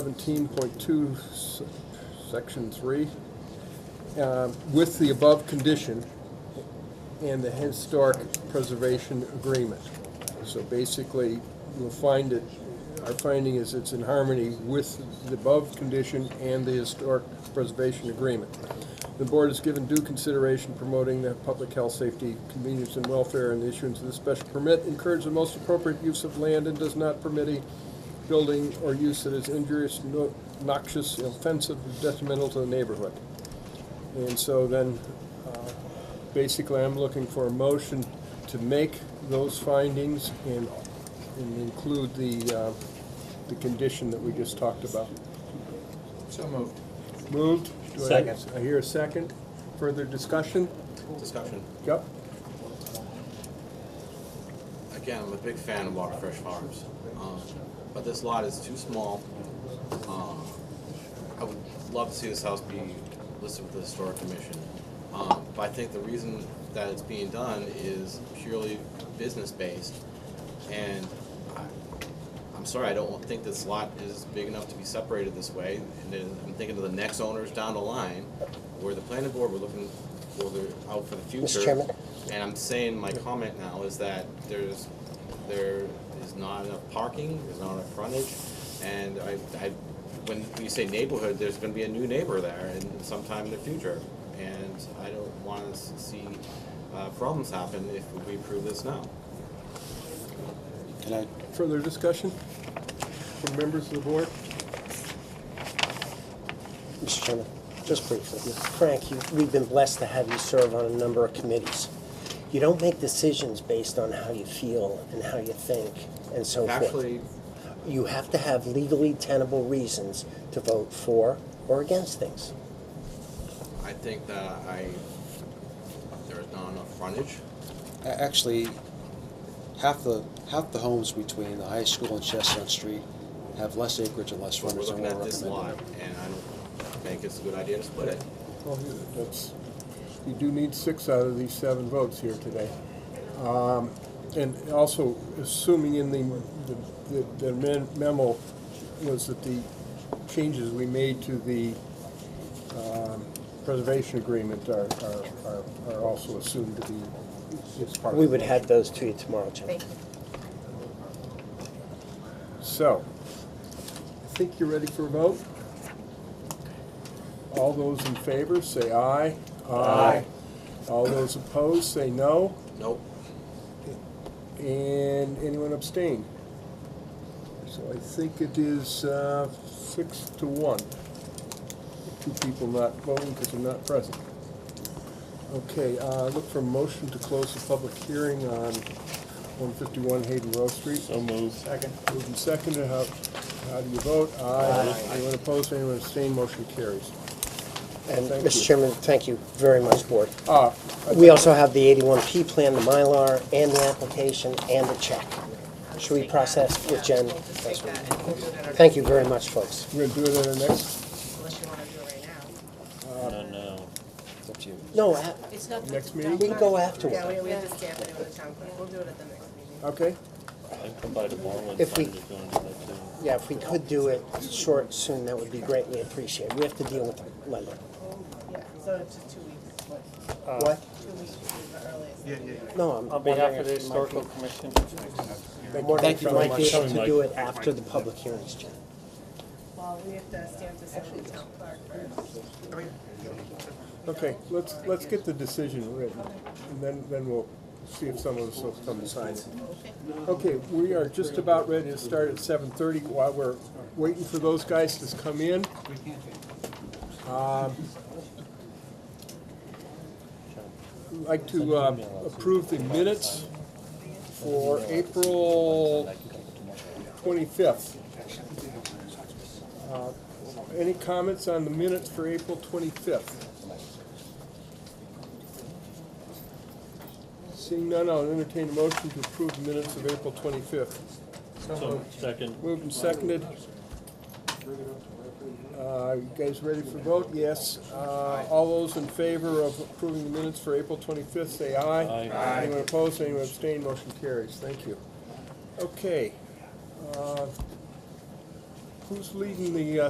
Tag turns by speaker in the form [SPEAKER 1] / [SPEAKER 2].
[SPEAKER 1] seventeen point two, section three, um, with the above condition and the historic preservation agreement. So basically, you'll find it, our finding is it's in harmony with the above condition and the historic preservation agreement. The board has given due consideration promoting the public health, safety, convenience, and welfare in the issuance of this special permit, encourages the most appropriate use of land, and does not permit a building or use that is injurious, no- noxious, offensive, detrimental to the neighborhood. And so then, uh, basically, I'm looking for a motion to make those findings and, and include the, uh, the condition that we just talked about.
[SPEAKER 2] So moved.
[SPEAKER 1] Moved? Do I hear-
[SPEAKER 3] Second.
[SPEAKER 1] I hear a second. Further discussion?
[SPEAKER 2] Discussion.
[SPEAKER 1] Yep.
[SPEAKER 2] Again, I'm a big fan of Water Fresh Farms, um, but this lot is too small. Um, I would love to see this house be listed with the Historic Commission. Um, but I think the reason that it's being done is purely business-based. And I, I'm sorry, I don't think this lot is big enough to be separated this way. And then I'm thinking of the next owners down the line, where the planning board, we're looking, for the out for the future.
[SPEAKER 4] Chairman?
[SPEAKER 2] And I'm saying, my comment now is that there's, there is not enough parking, there's not enough frontage, and I, I, when you say neighborhood, there's gonna be a new neighbor there in sometime in the future, and I don't wanna s- see, uh, problems happen if we approve this now.
[SPEAKER 3] Can I,
[SPEAKER 1] Further discussion from members of the board?
[SPEAKER 4] Mr. Chairman, just briefly. Frank, you- we've been blessed to have you serve on a number of committees. You don't make decisions based on how you feel and how you think and so forth.
[SPEAKER 2] Actually,
[SPEAKER 4] You have to have legally tenable reasons to vote for or against things.
[SPEAKER 2] I think that I, there's not enough frontage,
[SPEAKER 3] a- actually, half the, half the homes between the high school and Chestnut Street have less acreage and less
[SPEAKER 2] but we're
[SPEAKER 3] frontage than
[SPEAKER 2] looking
[SPEAKER 3] we're
[SPEAKER 2] at this lot,
[SPEAKER 3] recommending.
[SPEAKER 2] and I don't think it's a good idea to split it.
[SPEAKER 1] Well, that's, you do need six out of these seven votes here today. Um, And also, assuming in the, the- the men- memo was that the changes we made to the um, preservation agreement are, are- are, are also assumed to be, it's part of.
[SPEAKER 4] We
[SPEAKER 1] the
[SPEAKER 4] would
[SPEAKER 1] motion.
[SPEAKER 4] have those to you tomorrow, Jim.
[SPEAKER 5] Thank you.
[SPEAKER 1] So, I think you're ready for a vote. All those in favor, say aye. Aye. All those opposed, say no.
[SPEAKER 2] Nope,
[SPEAKER 1] And anyone abstain? So I think it is uh, six to one. Two people not voting because they're not present. Okay, uh, look for a motion to close the public hearing on 151 Hayden Row Street. So moved. Second. Moved and seconded. How how do you vote? Aye. Anyone opposed, anyone abstain, motion carries.
[SPEAKER 4] And,
[SPEAKER 1] Thank you.
[SPEAKER 4] Mr. Chairman, thank you very much, Board.
[SPEAKER 1] Uh,
[SPEAKER 4] We also have the 81P plan, the Mylar, and the application, and the check. Should we process with Jen?
[SPEAKER 5] Yeah, we'll just take that and we'll do it at our
[SPEAKER 4] Thank
[SPEAKER 5] next
[SPEAKER 4] you very much, folks.
[SPEAKER 1] We're going to do it in the next,
[SPEAKER 5] meeting, Unless you wanna do it right now.
[SPEAKER 3] It's up to you.
[SPEAKER 4] No, a-
[SPEAKER 5] It's not.
[SPEAKER 1] Next meeting?
[SPEAKER 4] we can go afterward.
[SPEAKER 5] Yeah, we, we have to stamp it in with the town clerk, we'll do it at the next meeting.
[SPEAKER 1] okay?
[SPEAKER 6] I can come by tomorrow and
[SPEAKER 4] If we-
[SPEAKER 6] find it going to that too.
[SPEAKER 4] Yeah, if we could do it short, soon, that would be greatly appreciated. We have to deal with the lender.
[SPEAKER 5] Yeah, so it's just two weeks, what,
[SPEAKER 3] Uh,
[SPEAKER 4] What?
[SPEAKER 5] two weeks is the earliest. Yeah, yeah.
[SPEAKER 4] No, I'm
[SPEAKER 7] On behalf of the
[SPEAKER 4] wondering if we might
[SPEAKER 7] historical commission,
[SPEAKER 4] be- I'm wondering if
[SPEAKER 3] Thank
[SPEAKER 4] we
[SPEAKER 3] you very
[SPEAKER 4] might be
[SPEAKER 3] much.
[SPEAKER 4] able to do it after the public hearings, Jen.
[SPEAKER 5] Well, we have to stamp this in with the town clerk first.
[SPEAKER 1] Okay, let's, let's get the decision written, and then, then we'll see if some of us will come to sign it. Okay, we are just about ready to start at seven thirty while we're waiting for those guys to come in. um, I'd Like to uh, approve the minutes for April twenty-fifth. Uh, Any comments on the minutes for April twenty-fifth? Seeing none, I'll entertain a motion to approve the minutes of April twenty-fifth.
[SPEAKER 6] So, second,
[SPEAKER 1] Moved and seconded. Uh, you guys ready for vote? Yes. Uh, all those in favor of approving the minutes for April twenty-fifth, say aye.
[SPEAKER 6] Aye.
[SPEAKER 1] Anyone opposed, anyone abstained, motion carries. Thank you. Okay. Uh, who's leading the, uh,